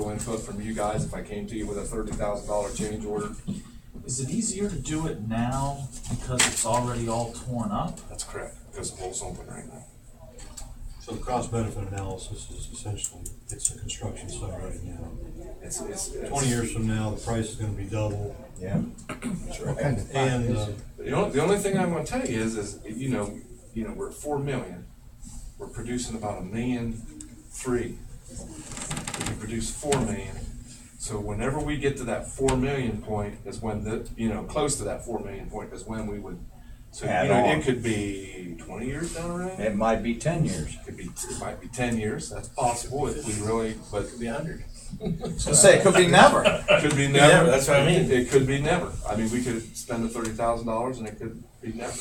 input from you guys if I came to you with a thirty thousand dollar change order. Is it easier to do it now because it's already all torn up? That's correct, because the hole's open right now. So the cost benefit analysis is essentially, it's a construction site right now. It's, it's. it's- Twenty years from now, the price is gonna be double, Yeah. What kind of thought and, is uh, it? The only, the only thing I'm gonna tell you is, is, you know, you know, we're at four million, we're producing about a million three. We can produce four million, so whenever we get to that four million point is when the, you know, close to that four million point is when we would. So, you Add know, on. it could be twenty years down the road, it It might be ten years. could be, it might be ten years, that's possible, if we really, but it could be a hundred. So say, it could be never. Could be never. never, that's what I mean. It could be never. I mean, we could spend the thirty thousand dollars and it could be never.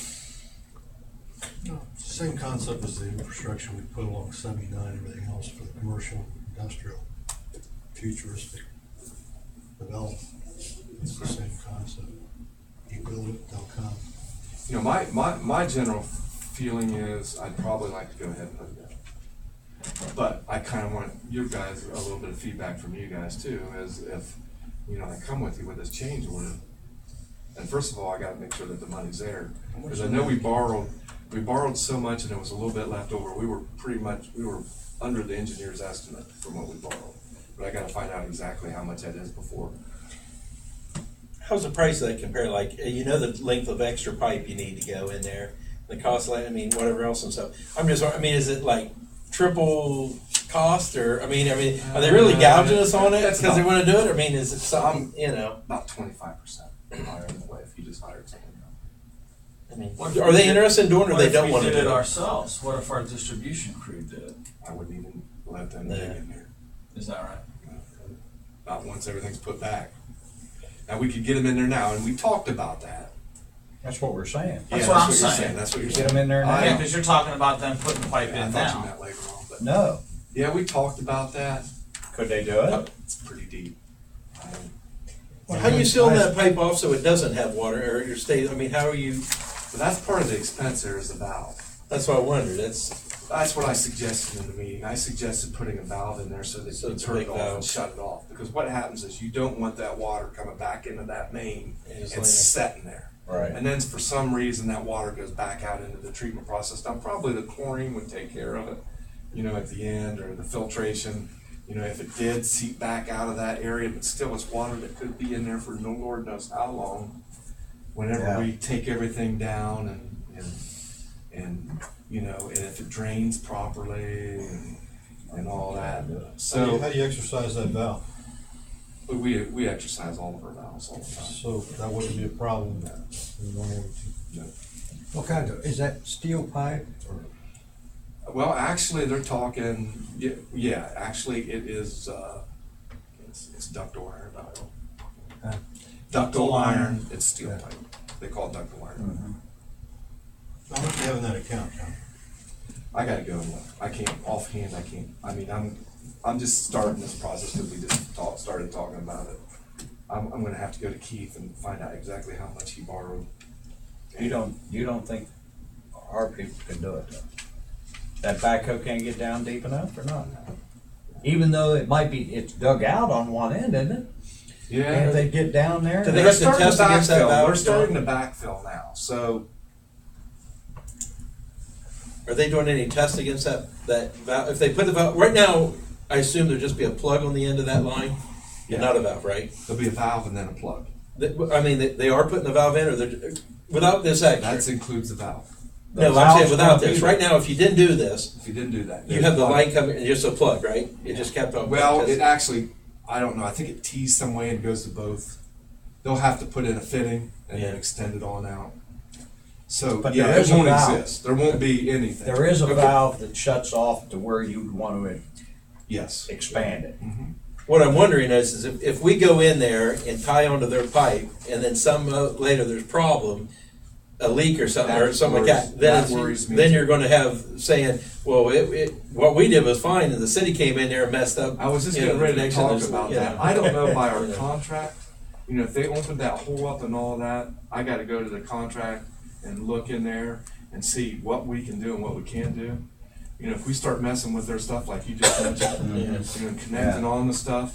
same concept as the infrastructure we put along seventy-nine, everything else for the commercial, industrial, futuristic development. It's the same concept. You build it, they'll come. You know, my, my, my general feeling is I'd probably like to go ahead and put it down. But I kind of want your guys, a little bit of feedback from you guys too, as if, you know, I come with you with this change order. And first of all, I gotta make sure that the money's there, because I know we borrowed, we borrowed so much and there was a little bit left over. We were pretty much, we were under the engineer's estimate from what we borrowed. But I gotta find out exactly how much that is before. How's the price of that compare? Like, uh, you know, the length of extra pipe you need to go in there, the cost, like, I mean, whatever else and stuff. I'm just, I mean, is it like triple cost or, I mean, I mean, are they really gouging us on it That's because they not- want to do it? I mean, is it something, you know? About twenty-five percent higher than what if you just hired someone else. I mean, What if are we they did- interested in doing it or What they if don't we want to did it do it? ourselves? What if our distribution crew did it? I wouldn't even let them Yeah. dig in there. Is that right? Not once everything's put back. Now, we could get them in there now, and we talked about that. That's what we're saying. That's Yeah, what I'm you're saying. That's what you're saying. Get them in there I- Yeah, now. because you're talking about them putting the pipe Yeah, I in thought you now. meant later on, but, No. yeah, we talked about that. Could they do it? It's pretty deep. Um, Well, How do you seal that pipe off so it doesn't have water or your state? I mean, how are you, But that's part of the expense there is the valve. that's what I wondered. That's, That's what I suggested in the meeting. I suggested putting a valve in there so that So you it's a turn big it off and valve. shut it off. Because what happens is you don't want that water coming back into that main And and just laying there. setting there. Right. And then for some reason, that water goes back out into the treatment process. Now, probably the chlorine would take care of it, you know, at the end or the filtration. You know, if it did seep back out of that area, but still it's water that could be in there for no Lord knows how long. Yeah. Whenever we take everything down and, and, and, you know, and if it drains properly and, and all that. How do you- So how do you exercise that valve? we, we exercise all of our valves all the time. So that wouldn't be a problem in one or two. What kind of, is that steel pipe or? Well, actually, they're talking, yeah, yeah actually, it is, uh, it's, it's ductile iron, ductile. Huh? Ductile Ductile iron. iron, it's steel Yeah. pipe. They call it ductile iron. How much do you have in that account, John? I gotta go, and look. I can't, offhand, I can't, I mean, I'm, I'm just starting this process because we just talked, started talking about it. I'm, I'm gonna have to go to Keith and find out exactly how much he borrowed. You don't, you don't think our people can do it? though? That backhoe can't get down deep enough or not? Even though it might be, it's dug out on one end, isn't it? Can't Yeah, they get down there? Do they- they're have to starting to test against that backfill, valve, they're John? starting to backfill now, so are they doing any tests against that, that valve? If they put the valve, right now, I assume there'd just be a plug on the end of that line Yeah. and not a valve, right? there'll be a valve and then a plug. That- I mean, they, they are putting the valve in, or they're, without this That extra. includes the valve. The No, I'm saying valve's without gonna be this. there. Right now, if you didn't do this, If you didn't do that. you have the there's- line coming, and just a plug, right? It just kept on. Well, it just- actually, I don't know, I think it tees some way and goes to both. They'll have to put in a fitting and then Yeah. extend it on out. So, But yeah, there it is a won't valve. exist, there won't be anything. There is a Okay. valve that shuts off to where you'd want to Yes. expand it. What I'm wondering is, is if, if we go in there and tie onto their pipe, and then some, uh, later there's problem, a leak or something, or That something like that, worries- then, that it's- worries me then too. you're gonna have saying, well, it, it, what we did was fine, and the city came in there and messed up. I was just you know, getting ready to connection, talk there's- about you know. that. I don't know by our Yeah. contract, you know, if they opened that hole up and all that, I gotta go to the contract and look in there and see what we can do and what we can't do. You know, if we start messing with their stuff like you just mentioned, you know, connecting on the stuff,